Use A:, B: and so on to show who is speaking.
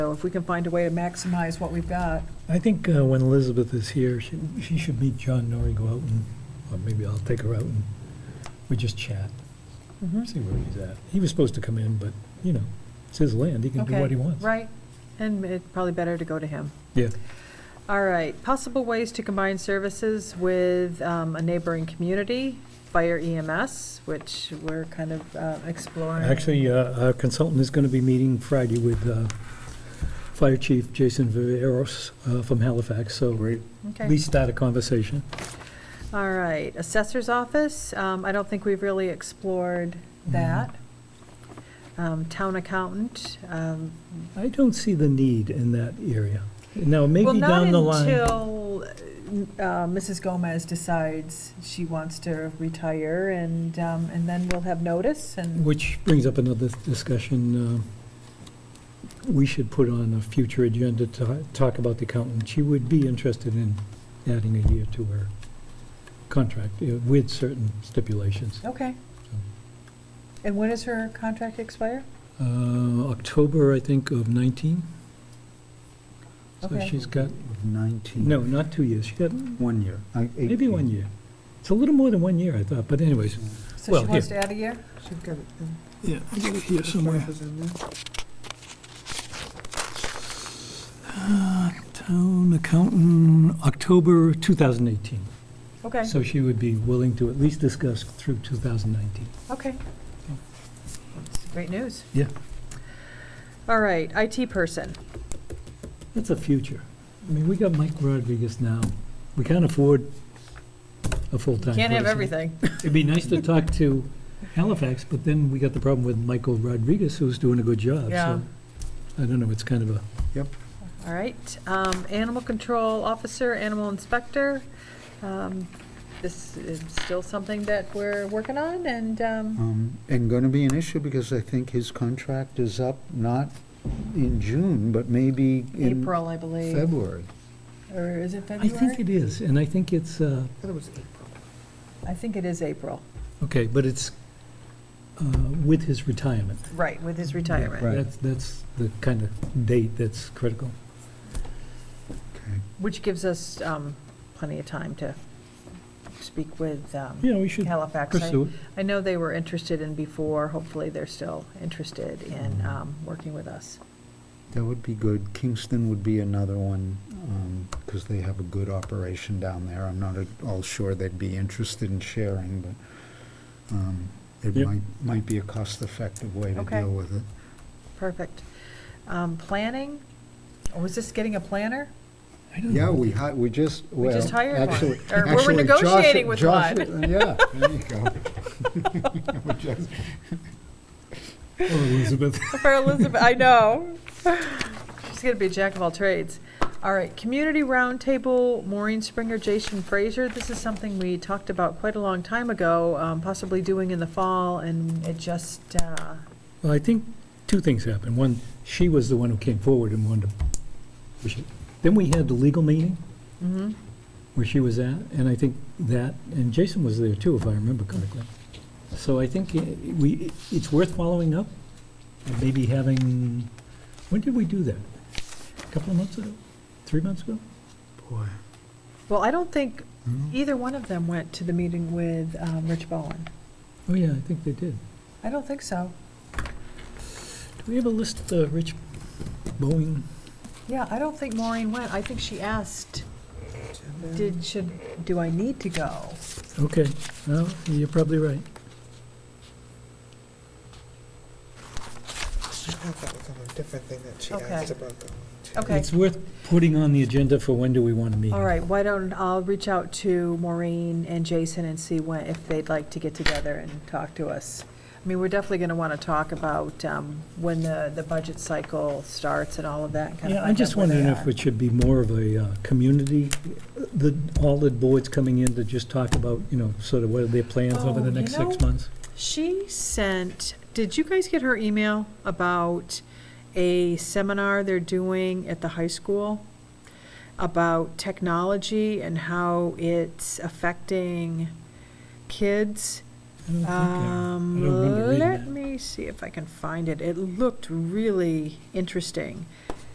A: so if we can find a way to maximize what we've got.
B: I think uh, when Elizabeth is here, she, she should meet John Norrie, go out and, or maybe I'll take her out and we just chat, see where he's at. He was supposed to come in, but, you know, it's his land, he can do
A: Okay,
B: what he wants.
A: Right, and it's probably better to go to him.
B: Yeah,
A: All right, possible ways to combine services with um, a neighboring community, fire EMS, which we're kind of uh, exploring.
B: actually, uh, our consultant is going to be meeting Friday with uh, Fire Chief Jason Viveros uh, from Halifax, so at
A: Okay,
B: least start a conversation.
A: all right, assessor's office, um, I don't think we've really explored
B: Mm-hmm.
A: that. Um, Town accountant, um,
B: I don't see the need in that area. Now,
A: well,
B: maybe
A: not
B: down the line.
A: until uh, Mrs. Gomez decides she wants to retire, and, um, and then we'll have notice, and,
B: Which brings up another discussion. uh, We should put on a future agenda to talk about the accountant. She would be interested in adding a year to her contract uh, with certain stipulations.
A: okay. And when does her contract expire?
B: Uh, October, I think, of 19. So
A: Okay.
B: she's got,
C: 19.
B: no, not two years. She got
C: One year. Uh, eight
B: maybe one year. It's a little more than one year, I thought, but anyways.
A: So
B: Well,
A: she wants to add a year? She's got it.
B: Yeah, I got it here Uh, Town accountant, October 2018.
A: Okay,
B: So she would be willing to at least discuss through 2019.
A: okay. That's Great news.
B: Yeah.
A: All right, IT person.
B: That's a future. I mean, we got Mike Rodriguez now. We can't afford a full-time person.
A: Can't have everything.
B: It'd be nice to talk to Halifax, but then we got the problem with Michael Rodriguez, who's doing a good job. so
A: Yeah.
B: I don't know, it's kind of a,
A: All right, um, animal control officer, animal inspector. Um, This is still something that we're working on, and, um,
C: Um, And going to be an issue because I think his contract is up, not in June, but maybe in
A: April, I believe,
C: February.
A: or is it
B: I
A: February?
B: think it is, and I think it's, uh,
A: I think it is April,
B: okay, but it's uh, with his retirement.
A: right, with his retirement.
C: Right.
B: That's, that's the kind of date that's critical.
C: Okay.
A: Which gives us um, plenty of time to speak with um,
B: Yeah, we should
A: Halifax. I-
B: pursue it.
A: I know they were interested in before, hopefully they're still interested in um, working with us.
C: That would be good. Kingston would be another one, because they have a good operation down there. I'm not at all sure they'd be interested in sharing, but um, it
B: Yep.
C: might, might be a cost-effective way to
A: Okay.
C: deal with it.
A: Perfect. Um, Planning, oh, is this getting a planner?
B: I don't
C: Yeah,
B: know.
C: we hi, we just, well.
A: just hired one.
C: actually-
A: Or we're
C: actually, Josh-
A: negotiating with
C: Josh-
A: one.
C: Yeah, there you go. We just-
B: Oh, Elizabeth.
A: For Elizabeth, I know. She's going to be a jack of all trades. All right, Community Roundtable, Maureen Springer, Jason Fraser. This is something we talked about quite a long time ago, um, possibly doing in the fall, and it just, uh,
B: Well, I think two things happened. One, she was the one who came forward and wanted to push it. Then we had the legal meeting
A: mhm.
B: where she was at, and I think that, and Jason was there too, if I remember correctly. So I think i- we, it's worth following up, and maybe having, when did we do that? A Couple of months ago? Three months ago?
C: Boy.
A: well, I don't think either one of them went to the meeting with um, Rich Bowen.
B: Oh, yeah, I think they did.
A: I don't think so.
B: Do we have a list of the Rich Boeing?
A: Yeah, I don't think Maureen went. I think she asked, did, should, do I need to go?
B: Okay, well, you're probably right.
D: I thought it was on a different thing that she
A: Okay.
D: asked about going to.
A: Okay,
B: It's worth putting on the agenda for when do we want to meet.
A: all right, why don't, I'll reach out to Maureen and Jason and see when, if they'd like to get together and talk to us. I mean, we're definitely going to want to talk about um, when the, the budget cycle starts and all of that, and kind of
B: Yeah, I'm
A: find
B: just
A: out where they
B: wondering if
A: are.
B: it should be more of a uh, community, the, all the boards coming in to just talk about, you know, sort of what are their plans over
A: Oh,
B: the
A: you
B: next six
A: know-
B: months.
A: She sent, did you guys get her email about a seminar they're doing at the high school about technology and how it's affecting kids?
B: I don't think, uh, I
A: Um,
B: don't remember reading
A: let
B: that.
A: me see if I can find it. It looked really interesting.